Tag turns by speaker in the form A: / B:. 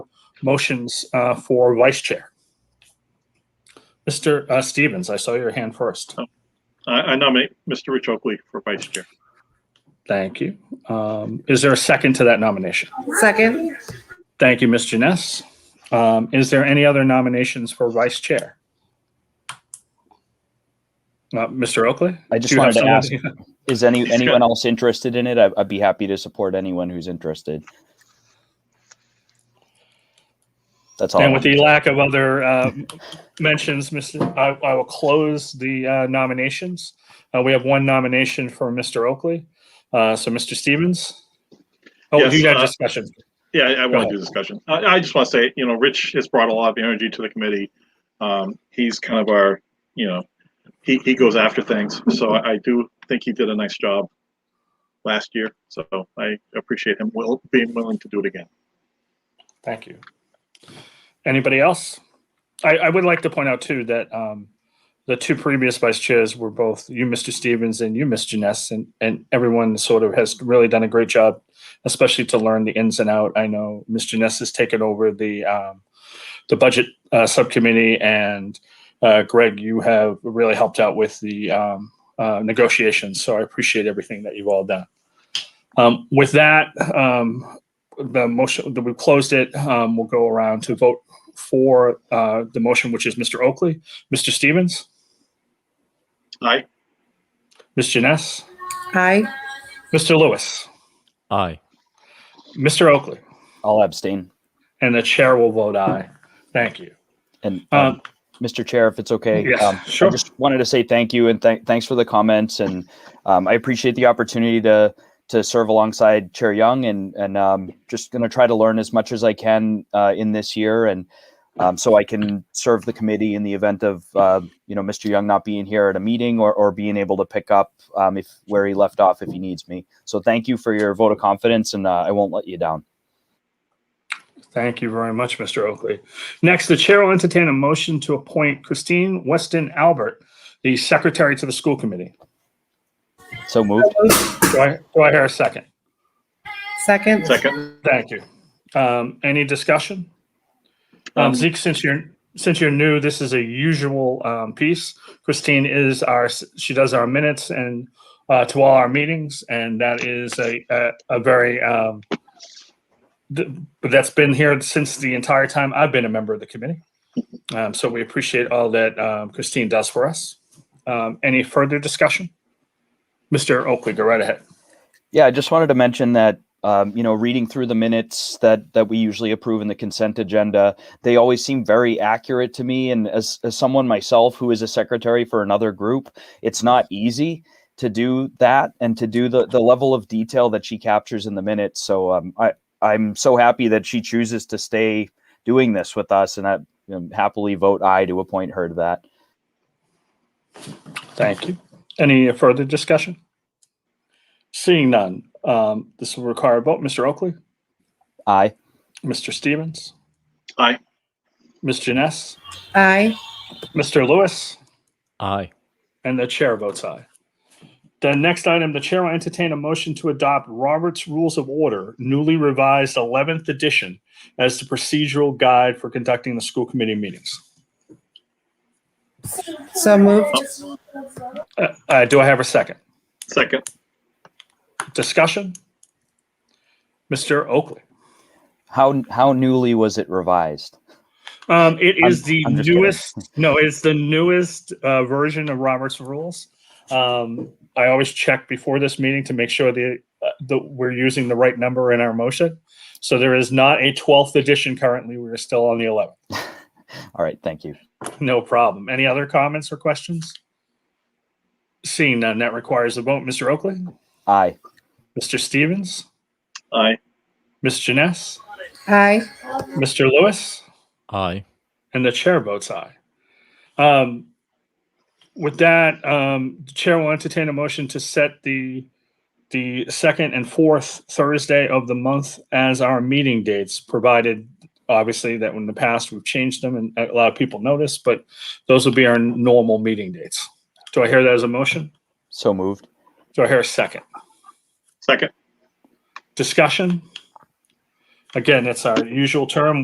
A: motions uh, for vice chair. Mr. uh, Stevens, I saw your hand first.
B: I, I nominate Mr. Rich Oakley for vice chair.
A: Thank you. Um, Is there a second to that nomination?
C: Second,
A: Thank you, Ms. Janess. Um, Is there any other nominations for vice chair? Uh, Mr. Oakley?
D: I just
A: do you have
D: wanted to ask,
A: someone?
D: is any,
B: He's
D: anyone else interested in it? I, I'd be happy to support anyone who's interested. That's all. I
A: And with
D: wanted
A: the
D: to-
A: lack of other uh, mentions, Mr., I, I will close the uh, nominations. Uh, we have one nomination for Mr. Oakley. Uh, so, Mr. Stevens? Oh,
B: Yes,
A: you got
B: uh,
A: discussion.
B: Yeah, I, I
A: Go
B: want
A: ahead.
B: to do discussion. I, I just want to say, you know, Rich has brought a lot of energy to the committee. Um, he's kind of our, you know, he, he goes after things. So I, I do think he did a nice job last year. So I appreciate him will, being willing to do it again.
A: Thank you. Anybody else? I, I would like to point out too that um, the two previous vice chairs were both you, Mr. Stevens, and you, Ms. Janess, and, and everyone sort of has really done a great job, especially to learn the ins and out. I know Ms. Janess has taken over the um, the budget uh, subcommittee, and uh, Greg, you have really helped out with the um, uh, negotiations. So I appreciate everything that you've all done. Um, with that, um, the motion that we closed it, um, we'll go around to vote for uh, the motion, which is Mr. Oakley, Mr. Stevens,
B: Aye.
A: Ms. Janess,
C: aye.
A: Mr. Lewis,
E: Aye.
A: Mr. Oakley,
D: I'll abstain.
A: and the chair will vote aye. Thank you.
D: And um,
A: Um,
D: Mr. Chair, if it's okay,
A: Yes,
D: um,
A: sure.
D: I just wanted to say thank you and th- thanks for the comments, and um, I appreciate the opportunity to to serve alongside Chair Young, and and um, just going to try to learn as much as I can uh, in this year, and um, so I can serve the committee in the event of uh, you know Mr. Young not being here at a meeting or or being able to pick up um, if where he left off if he needs me. So thank you for your vote of confidence, and uh, I won't let you down.
A: Thank you very much, Mr. Oakley. Next, the chair will entertain a motion to appoint Christine Weston Albert, the secretary to the school committee.
D: So moved.
A: Do I, do I hear a second?
C: Second,
B: Second.
A: Thank you. Um, any discussion? Um,
B: Um,
A: Zeke, since you're since you're new, this is a usual um, piece. Christine is our she does our minutes and uh, to all our meetings, and that is a a, a very um, th- that's been here since the entire time I've been a member of the committee. Um, so we appreciate all that um, Christine does for us. Um, any further discussion, Mr. Oakley? Go right ahead.
D: Yeah, I just wanted to mention that um, you know, reading through the minutes that that we usually approve in the consent agenda, they always seem very accurate to me. And as as someone myself who is a secretary for another group, it's not easy to do that and to do the the level of detail that she captures in the minutes. So um, I I'm so happy that she chooses to stay doing this with us, and I um, happily vote aye to appoint her to that.
A: Thank you. Any further discussion? Seeing none, um, this will require a vote. Mr. Oakley,
D: Aye.
A: Mr. Stevens,
B: Aye.
A: Ms. Janess,
C: aye.
A: Mr. Lewis,
E: Aye.
A: and the chair votes aye. The next item, the chair will entertain a motion to adopt Robert's Rules of Order, newly revised 11th edition, as the procedural guide for conducting the school committee meetings.
C: So moved,
A: Uh, uh, do I have a second?
B: Second.
A: Discussion? Mr. Oakley?
D: How how newly was it revised?
A: Um, it
D: I'm-
A: is the
D: I'm just kidding.
A: newest. No, it's the newest uh, version of Robert's Rules. Um, I always check before this meeting to make sure that, uh, that we're using the right number in our motion. So there is not a 12th edition currently. We are still on the 11th.
D: All right, thank you.
A: No problem. Any other comments or questions? Seeing none, that requires a vote. Mr. Oakley,
D: Aye.
A: Mr. Stevens,
B: Aye.
A: Ms. Janess,
C: aye.
A: Mr. Lewis.
E: Aye.
A: And the chair votes aye. Um, with that, um, the chair will entertain a motion to set the the second and fourth Thursday of the month as our meeting dates, provided obviously that in the past we've changed them and a lot of people notice, but those will be our normal meeting dates. Do I hear that as a motion?
D: So moved.
A: Do I hear a second?
B: Second.
A: Discussion? Again, it's our usual term.